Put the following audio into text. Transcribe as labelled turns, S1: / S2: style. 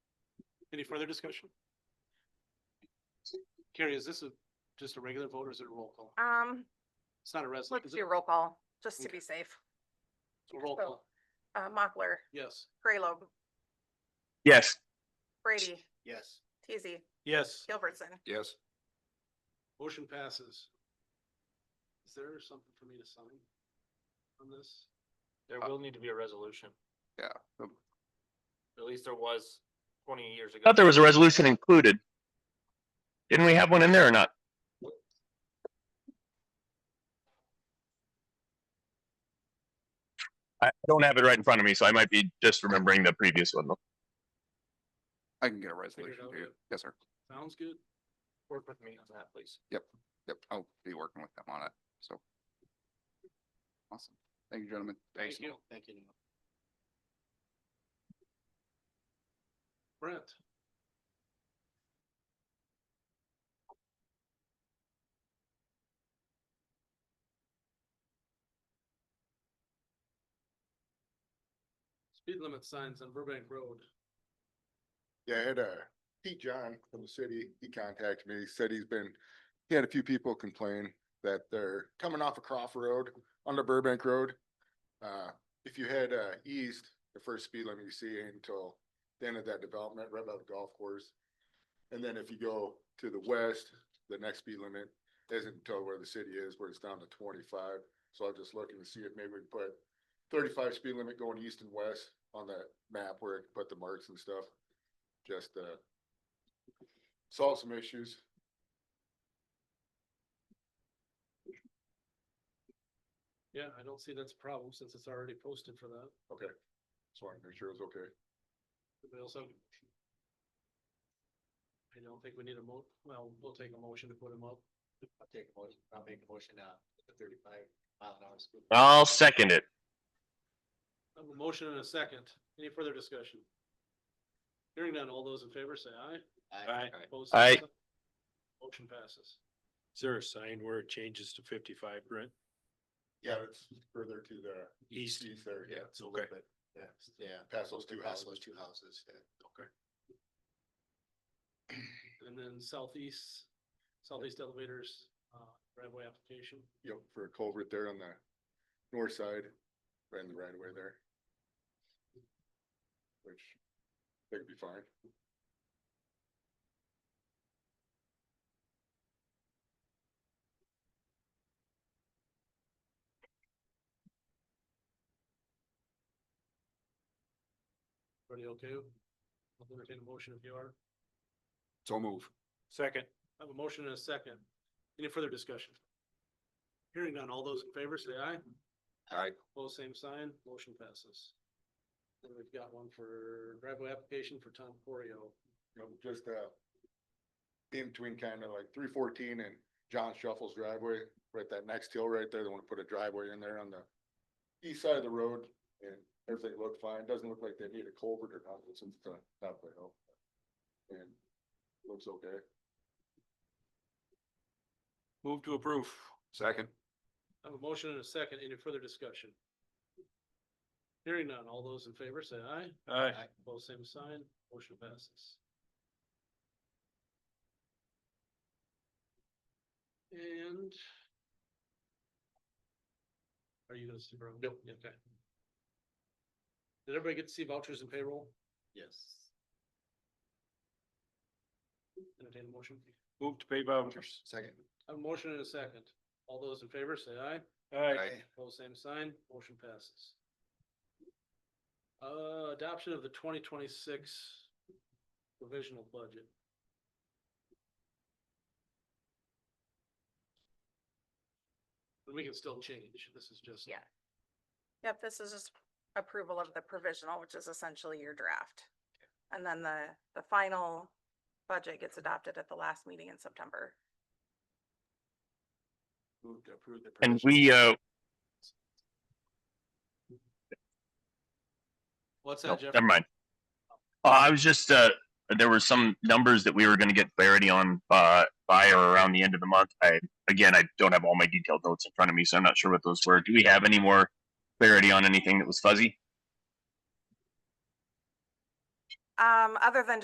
S1: Any further discussion? Carrie, is this a, just a regular vote or is it a roll call?
S2: Um,
S1: It's not a res,
S2: let's
S1: is it
S2: do roll call, just to
S1: Okay.
S2: be safe.
S1: a roll
S2: vote.
S1: call?
S2: Uh, Mochler,
S1: Yes.
S2: Graylobe,
S3: Yes.
S2: Brady,
S1: Yes.
S2: Teasy,
S1: Yes.
S2: Gilbertson.
S3: Yes.
S1: Motion passes. Is there something for me to sign on this?
S4: There
S3: Uh,
S4: will need to be a resolution.
S3: yeah, um,
S4: At least there was twenty years ago.
S3: Thought there was a resolution included. Didn't we have one in there or not? I I don't have it right in front of me, so I might be just remembering the previous one. though.
S5: I can get a
S1: Figure it
S5: resolution
S1: out
S5: to you.
S1: yet?
S5: Yes, sir.
S1: Sounds good.
S4: Work with me on that, please.
S5: Yep, I'll be working with them on it, so. Awesome. Thank you, gentlemen.
S1: Thank you. Thank you. Brent, speed limit signs on Burbank Road.
S6: Yeah, I had uh Pete John from the city, he contacted me, said he's been, he had a few people complain that they're coming off of Croft Road onto Burbank Road. Uh, if you head uh east, the first speed limit you see until the end of that development, right by the golf course. And then if you go to the west, the next speed limit isn't until where the city is, where it's down to twenty-five. So I'm just looking to see if maybe we can put thirty-five speed limit going east and west on that map where it can put the marks and stuff just uh solve some issues.
S1: Yeah, I don't see that's a problem since it's already posted for that.
S6: Okay. Just wanted to make sure it was okay.
S1: Anybody else have? I don't think we need a mo, well, we'll take a motion to put them up.
S4: I'll take a motion, I'll make a motion now, thirty-five mile an hour speed.
S3: I'll second it.
S1: I have a motion and a second. Any further discussion? Hearing none, all those in favor say aye.
S4: Aye.
S1: Opposed, same
S3: Aye.
S1: sign. Motion passes.
S7: Is there a sign where it changes to fifty-five, Brent?
S6: Yeah, it's further to the
S7: East?
S6: east there, yeah,
S7: It's a little bit.
S4: Yeah, yeah.
S6: past those two
S4: Past
S6: houses.
S4: those two houses, yeah.
S1: And then southeast, southeast elevators, uh, driveway application.
S6: Yep, for a culvert there on the north side, right in the right away there. Which they could be fine.
S1: Everybody okay? I'll entertain a motion if you are.
S5: So move.
S7: Second.
S1: I have a motion and a second. Any further discussion? Hearing none, all those in favor say aye.
S5: Aye.
S1: Both same sign, motion passes. And we've got one for driveway application for Tom Corio.
S6: you know, just uh. In between kind of like three fourteen and John Shuffle's driveway, right that next hill right there, they wanna put a driveway in there on the. East side of the road and everything looked fine, doesn't look like they need a culvert or nothing since the top of the hill. And looks okay.
S5: Move to approve. Second.
S1: I have a motion and a second. Any further discussion? Hearing none, all those in favor say aye.
S7: Aye.
S1: Both same sign, motion passes. And. Are you gonna see, bro? No. Okay. Did everybody get to see vouchers and payroll?
S4: Yes.
S1: Entertain a motion.
S7: Move to pay vouchers.
S4: Second.
S1: I have a motion and a second. All those in favor say aye.
S7: Aye.
S1: Pose same sign, motion passes. Uh, adoption of the twenty twenty-six provisional budget. And we can still change, this is just.
S2: Yeah. Yep, this is just approval of the provisional, which is essentially your draft. And then the, the final budget gets adopted at the last meeting in September.
S4: Move to approve the.
S3: And we, uh,
S1: What's
S3: no,
S1: that, Jeff?
S3: never mind. Uh, I was just, uh, there were some numbers that we were gonna get clarity on, uh, by or around the end of the month. I, again, I don't have all my detailed notes in front of me, so I'm not sure what those were. Do we have any more clarity on anything that was fuzzy?
S2: Um, other than